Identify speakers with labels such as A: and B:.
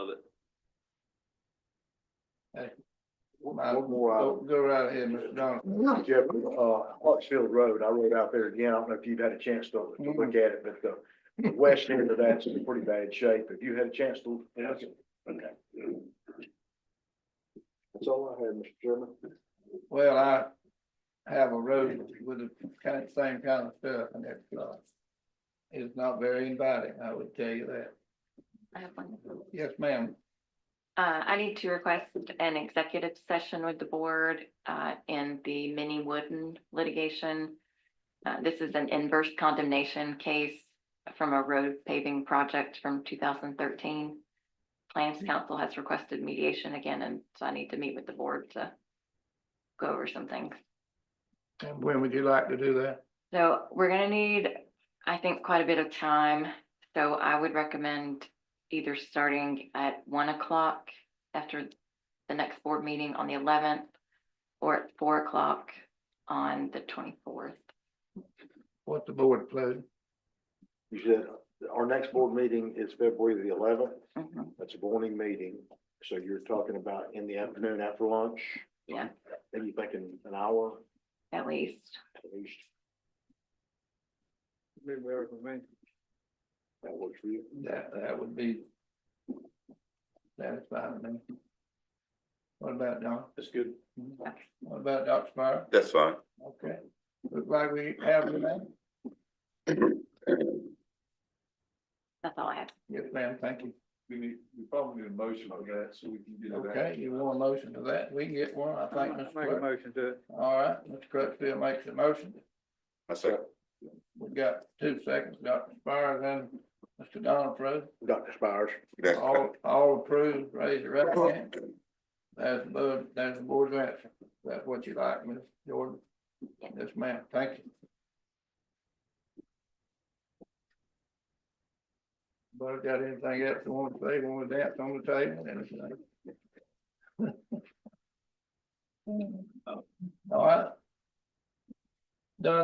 A: One more uh,
B: Go
A: item.
B: go right ahead, Mr. Donovan.
A: Jeff, uh, Hartsfield Road, I rode out there again. I don't know if you've had a chance to, to look at it, but the the west end of that's in pretty bad shape. Have you had a chance to? look at it? Okay. That's all I had, Mr. Chairman.
B: Well, I have a road with the kind, same kind of stuff and it's, uh, it's not very inviting, I would tell you that.
C: I have one.
B: Yes, ma'am.
C: Uh, I need to request an executive session with the board, uh, in the mini Wooden litigation. Uh, this is an inverse condemnation case from a road paving project from two thousand thirteen. Plans Council has requested mediation again, and so I need to meet with the board to go over some things.
B: And when would you like to do that?
C: So we're gonna need, I think, quite a bit of time, so I would recommend either starting at one o'clock after the next board meeting on the eleventh or at four o'clock on the twenty-fourth.
B: What's the board pleasure?
A: You said our next board meeting is February the eleventh.
C: Mm-hmm,
A: That's a morning meeting. So you're talking about in the afternoon after lunch?
C: Yeah.
A: Maybe you thinking an hour
C: At least,
A: at least.
B: Midway for me.
A: That works for you.
B: That, that would be satisfying to me. What about Don?
A: That's good.
B: What about Dr. Spire?
D: That's fine.
B: Okay, look like we have the man.
C: that's all I have.
B: Yes, ma'am, thank you.
E: We need, we probably need a motion for that, so we can get it back.
B: Okay, you want a motion to that? We can get one, I think, Mr. Clerk.
E: motion to it.
B: All right, Mr. Crutchfield makes the motion.
D: I second.
B: We've got two seconds, Dr. Spires and Mr. Donald Prue.
A: Dr. Spires.
D: That's
B: All, all approved, raise your right hand. That's the, board- that's the board's answer. That's what you like, Ms. Jordan? Yes, ma'am, thank you. But got anything else you want to say, want to dance on the table, anything?